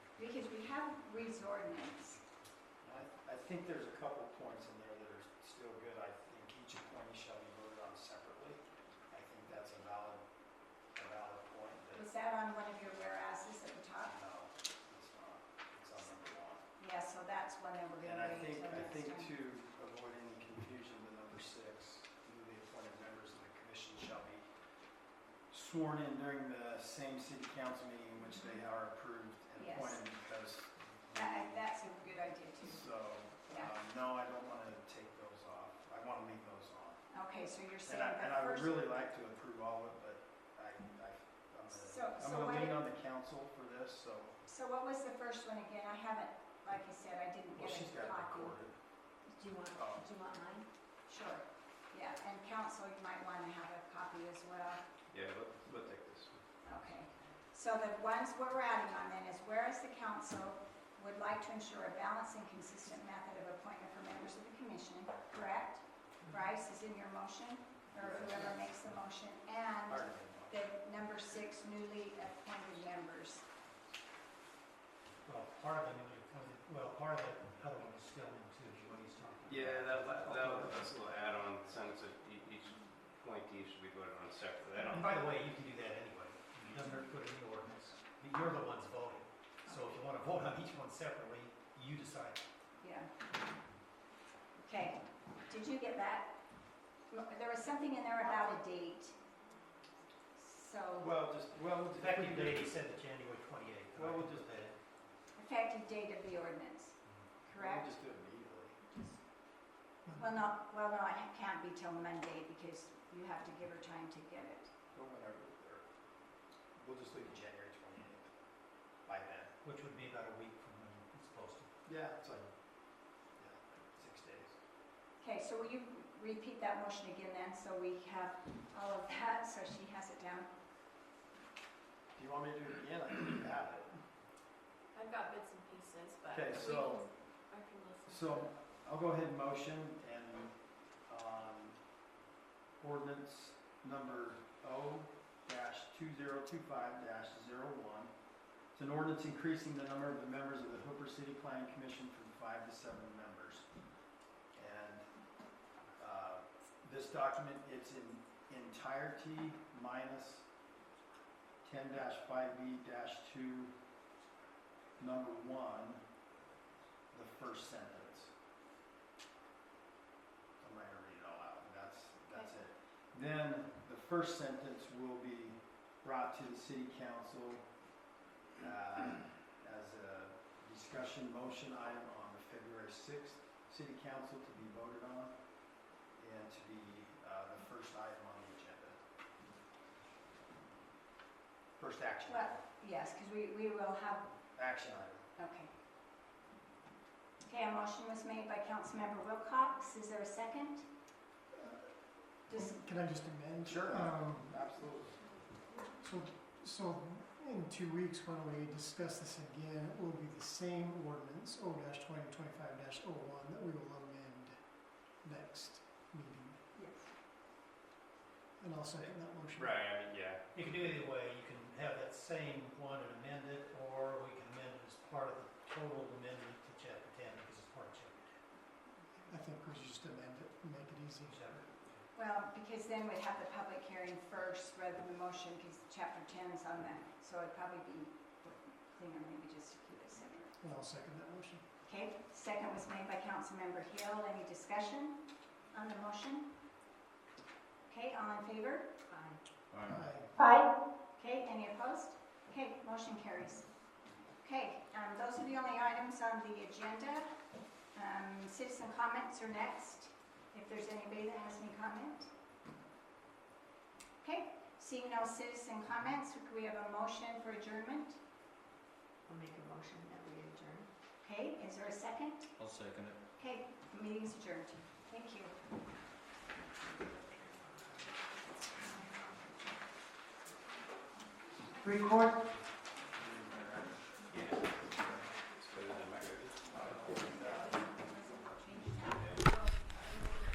Because we have Reed's ordinance. I, I think there's a couple points in there that are still good. I think each appointee shall be voted on separately. I think that's a valid, a valid point Was that on one of your warehouses at the that, top? no, it's not, it's on number one. Yeah, so that's one that we're And gonna I wait think, until I next think time. to avoid any confusion, the number six, newly appointed members of the commission shall be sworn in during the same city council meeting in which they are approved and Yes. appointed because. That- That's a good idea too. So, uh, no, I don't want to take those off. I want to leave those on. Okay, so you're saying And I, and the I would first, really like to approve all of it, but I, I, I'm So- gonna, I'm so why gonna lean don't- on the council for this, so. so what was the first one again? I haven't, like I said, I didn't Well, get she's a got it copy. recorded. Do you want, Oh. do you want mine? Sure, yeah, and council, you might want to have a copy as well. Yeah, we'll, we'll take this. one. Okay, so the ones we're adding on then is whereas the council would like to ensure a balanced and consistent method of appointment for members of the commission, correct? Bryce is in your motion, or whoever makes the motion, and Pardon me. the number six newly appointed members. Well, part of it, when you come to- well, part of the other one is still in too, is what he's talking about. Yeah, that, la- that, that's a little add-on sentence of e- each appointee should be voted on separately. And I don't, by the way, you can do that anyway. It doesn't hurt to put it in the ordinance. But You're the ones voting. So if you want to vote on each one separately, you decide. Yeah. Okay, did you get that? There was something in there about a date, so Oh, Well, just, well, if we Effective do- date, he said the January 28th. Well, we'll just- that. effective date of the ordinance, correct? We'll just do it immediately. Well, no, well, no, it can't be till Monday because you have to give her time to get it. Or whenever, or, we'll just leave it January 28th by then. Which would be about a week from when it's posted. Yeah, it's like, yeah, six days. Okay, so will you repeat that motion again then, so we have all of that, so she has it down? Do you want me to do it again? I think you have it. I've got bits and pieces, but Okay, we so- can- I can listen. So I'll go ahead and motion and um, ordinance number O two zero two five one It's an ordinance increasing the number of the members of the Hooper City Planning Commission from five to seven members. And uh, this document, it's in entirety minus ten five B two, number one, the first sentence. I'm not gonna read it all out, but that's, that's it. Then the first sentence will be brought to the city council uh, as a discussion motion item on the February 6th city council to be voted on and to be uh, the first item on the agenda. First action, Well, yes, because we, we will have, action item. okay. Okay, a motion was made by Councilmember Wilcox, is there a second? Just, Can I just amend? Sure. Um, Absolutely. So, so in two weeks, when we discuss this again, it will be the same ordinance, O dash twenty twenty-five dash oh one, that we will amend next meeting. yes. And I'll second that motion. right, I mean, yeah. You can do it either way. You can have that same one and amend it, or we can amend it as part of the total amendment to chapter 10 because it's part of chapter I think we should just amend it, and make it easy. 10. Chapter Well, because then we'd have the public hearing first rather than the motion, because chapter 10's on that, so it'd probably be cleaner maybe just to keep it separate. And I'll second that motion. Okay, second was made by Councilmember Hill. Any discussion on the motion? Okay, all in favor? Aye. Aye. Okay, any opposed? Okay, motion carries. Okay, um, those are the only items on the agenda. Um, Citizen comments are next, if there's anybody that has any comment. Okay, seeing no citizen comments, could we have a motion for adjournment? I'll make a motion that we adjourn. Okay, is there a second? I'll second it. Okay, meeting's adjourned. Thank you. Record.